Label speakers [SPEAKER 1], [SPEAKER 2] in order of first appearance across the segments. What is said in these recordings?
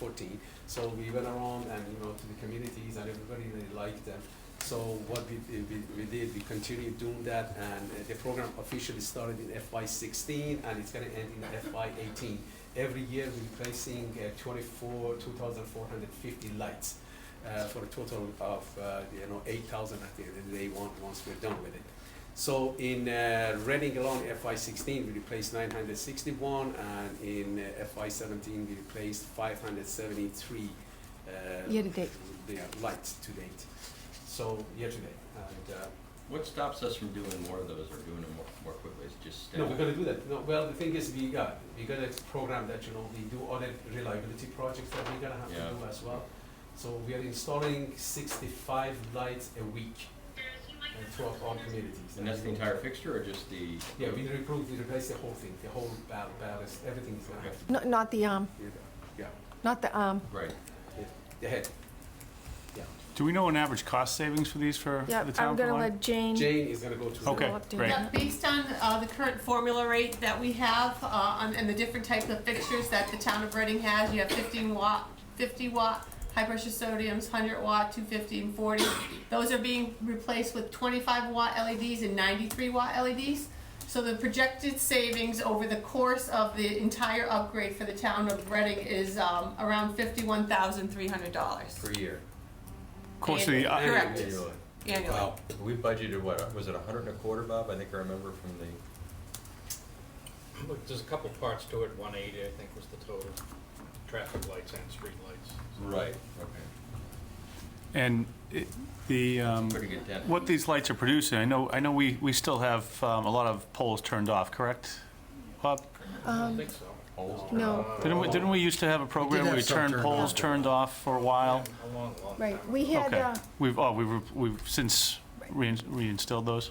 [SPEAKER 1] 14. So we went around and, you know, to the communities and everybody really liked them. So what we, we, we did, we continued doing that and uh, the program officially started in FY sixteen and it's gonna end in FY eighteen. Every year we're replacing uh, twenty-four, two thousand four hundred fifty lights, uh, for a total of, uh, you know, eight thousand at the end of the day, on- once we're done with it. So in uh, Reading alone, FY sixteen, we replaced nine hundred sixty-one, and in uh, FY seventeen, we replaced five hundred seventy-three. uh,
[SPEAKER 2] Year to date.
[SPEAKER 1] Yeah, lights to date, so year to date, and, uh,
[SPEAKER 3] What stops us from doing more of those or doing them more, more quickly? Is it just staff?
[SPEAKER 1] No, we're gonna do that, no, well, the thing is, we got, we got a program that, you know, we do other reliability projects that we're gonna have
[SPEAKER 3] Yeah.
[SPEAKER 1] to do as well. So we are installing sixty-five lights a week uh, throughout our communities.
[SPEAKER 3] And that's the entire fixture or just the?
[SPEAKER 1] Yeah, we replace, we replace the whole thing, the whole ball- ballast, everything is gonna have to be,
[SPEAKER 2] No- Not the, um,
[SPEAKER 1] yeah,
[SPEAKER 2] not the, um,
[SPEAKER 3] Right.
[SPEAKER 1] the head.
[SPEAKER 4] Do we know an average cost savings for these for
[SPEAKER 2] yeah,
[SPEAKER 4] the
[SPEAKER 2] I'm
[SPEAKER 4] town? for
[SPEAKER 2] gonna
[SPEAKER 4] Lyme?
[SPEAKER 2] let Jane
[SPEAKER 1] Jane is gonna go to. the-
[SPEAKER 4] Okay,
[SPEAKER 2] I'll update
[SPEAKER 4] great.
[SPEAKER 2] that.
[SPEAKER 5] Yeah, based on uh, the current formula rate that we have uh, on- and the different types of fixtures that the town of Reading has, you have 15 watt, 50 watt, high pressure sodiums, 100 watt, 250 and 40. Those are being replaced with 25 watt LEDs and 93 watt LEDs. So the projected savings over the course of the entire upgrade for the town of Reading is um, around $51,300
[SPEAKER 3] Per year.
[SPEAKER 4] Of course, the, uh,
[SPEAKER 5] Correct.
[SPEAKER 1] Anyway.
[SPEAKER 5] annually.
[SPEAKER 3] Wow. We budgeted what, was it a hundred and a quarter, Bob? I think I remember from the,
[SPEAKER 6] Look, there's a couple parts to it, one eighty, I think, was the total, traffic lights and street lights.
[SPEAKER 3] right, okay.
[SPEAKER 4] and it- the, um,
[SPEAKER 3] Pretty good dent.
[SPEAKER 4] what these lights are producing, I know, I know we, we still have um, a lot of poles turned off, correct? Bob,
[SPEAKER 6] I
[SPEAKER 2] Um,
[SPEAKER 6] don't think so.
[SPEAKER 3] Holes?
[SPEAKER 2] No,
[SPEAKER 4] didn't we, didn't we used to have a program where we
[SPEAKER 7] have some
[SPEAKER 4] turned
[SPEAKER 7] turned
[SPEAKER 4] poles
[SPEAKER 7] off.
[SPEAKER 4] turned off for a while?
[SPEAKER 6] A long, long time.
[SPEAKER 2] right, we had,
[SPEAKER 4] Okay,
[SPEAKER 2] uh,
[SPEAKER 4] we've, oh, we've, re- we've since rein- reinstilled those?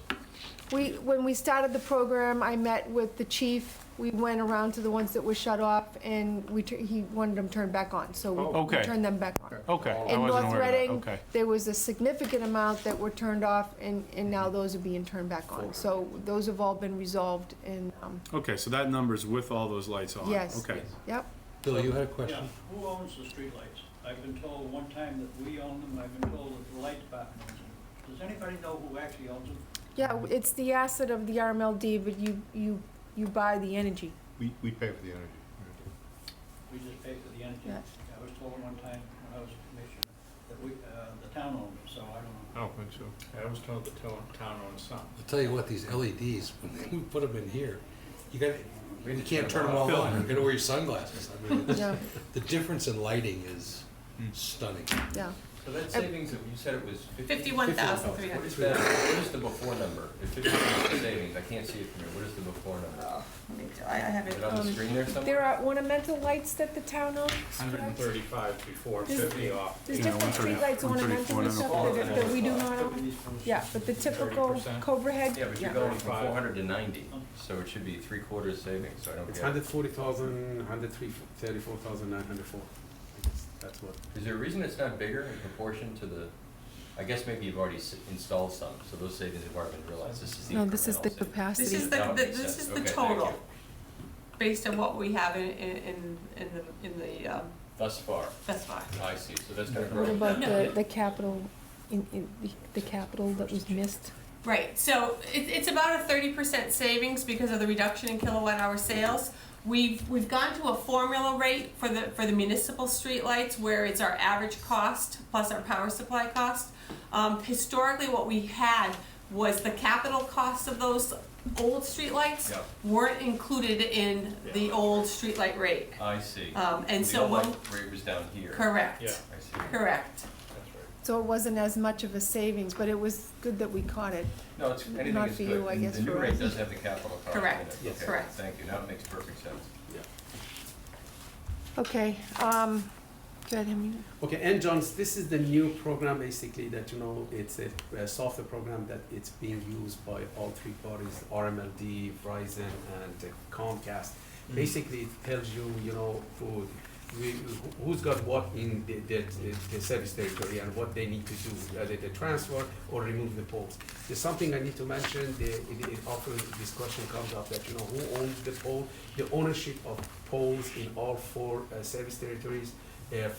[SPEAKER 2] we, when we started the program, I met with the chief. We went around to the ones that were shut off and we, tu- he wanted them turned back on, so
[SPEAKER 6] Oh.
[SPEAKER 2] we- we
[SPEAKER 4] Okay.
[SPEAKER 2] turned them back on.
[SPEAKER 4] Okay, I
[SPEAKER 2] In
[SPEAKER 4] wasn't
[SPEAKER 2] North
[SPEAKER 4] aware of that,
[SPEAKER 2] Reading,
[SPEAKER 4] okay.
[SPEAKER 2] there was a significant amount that were turned off and, and now those are being turned back on. So those have all been resolved and, um,
[SPEAKER 8] Okay, so that number's with all those lights on?
[SPEAKER 2] Yes.
[SPEAKER 8] Okay.
[SPEAKER 2] yep,
[SPEAKER 7] Bill, you had
[SPEAKER 9] Yeah,
[SPEAKER 7] a question?
[SPEAKER 9] who owns the streetlights? I've been told one time that we own them, I've been told that the light department owns them. Does anybody know who actually owns them?
[SPEAKER 2] yeah, it's the asset of the RMLD, but you, you, you buy the energy.
[SPEAKER 7] We, we pay for the energy.
[SPEAKER 9] We just pay for the energy.
[SPEAKER 2] Yeah.
[SPEAKER 9] I was told one time when I was commissioner that we, uh, the town owned them, so I don't know.
[SPEAKER 6] I
[SPEAKER 8] Oh,
[SPEAKER 6] don't think so. I was told the town, town owned some.
[SPEAKER 7] I'll tell you what, these LEDs, when we put them in here, you gotta, you can't turn them all
[SPEAKER 4] Bill.
[SPEAKER 7] on, you gotta wear your sunglasses. I mean, it's-
[SPEAKER 2] Yeah,
[SPEAKER 7] The difference in lighting is stunning.
[SPEAKER 2] yeah.
[SPEAKER 3] So that savings, of- you said it was fifty? What
[SPEAKER 5] 51,300.
[SPEAKER 3] is that, what is the before number? If fifty percent savings, I can't see it from here. What is the before number?
[SPEAKER 5] Oh, let me- I I have
[SPEAKER 3] Is
[SPEAKER 5] it.
[SPEAKER 3] it on
[SPEAKER 2] Um,
[SPEAKER 3] the screen there
[SPEAKER 2] There
[SPEAKER 3] somewhere?
[SPEAKER 2] are ornamental lights that the town owns.
[SPEAKER 6] Hundred and thirty-five before,
[SPEAKER 2] This-
[SPEAKER 6] fifty off.
[SPEAKER 2] There's
[SPEAKER 4] Yeah,
[SPEAKER 2] different
[SPEAKER 4] 130
[SPEAKER 2] streetlights, ornamental and stuff that, that we do not own. Yeah, but the typical
[SPEAKER 6] 30%.
[SPEAKER 2] Cobra head,
[SPEAKER 3] Yeah, but you're
[SPEAKER 2] yeah,
[SPEAKER 3] going from
[SPEAKER 6] 35.
[SPEAKER 3] four hundred to ninety, so it should be three quarters savings, so I don't
[SPEAKER 1] It's
[SPEAKER 3] get it.
[SPEAKER 1] hundred forty thousand, hundred three, thirty-four thousand nine hundred four. That's what,
[SPEAKER 3] Is there a reason it's not bigger in proportion to the, I guess maybe you've already s- installed some, so those savings have already been realized, this is the
[SPEAKER 2] No, this is
[SPEAKER 3] incremental
[SPEAKER 2] the
[SPEAKER 3] saving.
[SPEAKER 5] This
[SPEAKER 2] capacity.
[SPEAKER 5] is the,
[SPEAKER 3] That would
[SPEAKER 5] the-
[SPEAKER 3] make
[SPEAKER 5] this
[SPEAKER 3] sense.
[SPEAKER 5] is the
[SPEAKER 3] Okay, thank
[SPEAKER 5] total,
[SPEAKER 3] you.
[SPEAKER 5] based on what we have in, in, in- in the, in the, um,
[SPEAKER 3] Thus far,
[SPEAKER 5] that's fine.
[SPEAKER 3] I see, so that's gonna grow.
[SPEAKER 2] What about the, the capital, in, in, the capital that was missed?
[SPEAKER 5] Right, so it, it's about a thirty percent savings because of the reduction in kilowatt hour sales. We've, we've gone to a formula rate for the, for the municipal streetlights where it's our average cost plus our power supply cost. Um, historically, what we had was the capital cost of those old streetlights
[SPEAKER 3] Yep.
[SPEAKER 5] weren't included in the old streetlight rate.
[SPEAKER 3] I see.
[SPEAKER 5] Um, and
[SPEAKER 3] The
[SPEAKER 5] so,
[SPEAKER 3] old
[SPEAKER 5] when-
[SPEAKER 3] light rate was down here.
[SPEAKER 6] Yeah.
[SPEAKER 5] correct,
[SPEAKER 3] I see.
[SPEAKER 5] correct.
[SPEAKER 6] That's right.
[SPEAKER 2] So it wasn't as much of a savings, but it was good that we caught it.
[SPEAKER 3] No, it's, anything
[SPEAKER 2] Not
[SPEAKER 3] is
[SPEAKER 2] for you,
[SPEAKER 3] good,
[SPEAKER 2] I
[SPEAKER 3] And
[SPEAKER 2] guess
[SPEAKER 3] the new
[SPEAKER 2] for
[SPEAKER 3] rate
[SPEAKER 2] us.
[SPEAKER 3] does have the capital cost in it.
[SPEAKER 5] Correct. Yes.
[SPEAKER 3] Okay,
[SPEAKER 5] Correct.
[SPEAKER 3] Thank you, now it makes perfect sense.
[SPEAKER 1] yeah.
[SPEAKER 2] Okay, um, go ahead, Henry.
[SPEAKER 1] Okay, and John's, this is the new program basically that, you know, it's a, a software program that it's being used by all three parties, RMLD, Verizon, and uh, Comcast. Basically, it tells you, you know, who, we, who's got what in the, the, the- the service territory and what they need to do, whether they transfer or remove the poles. There's something I need to mention, the, it, it often, this question comes up that, you know, who owns the pole? The ownership of poles in all four uh, service territories if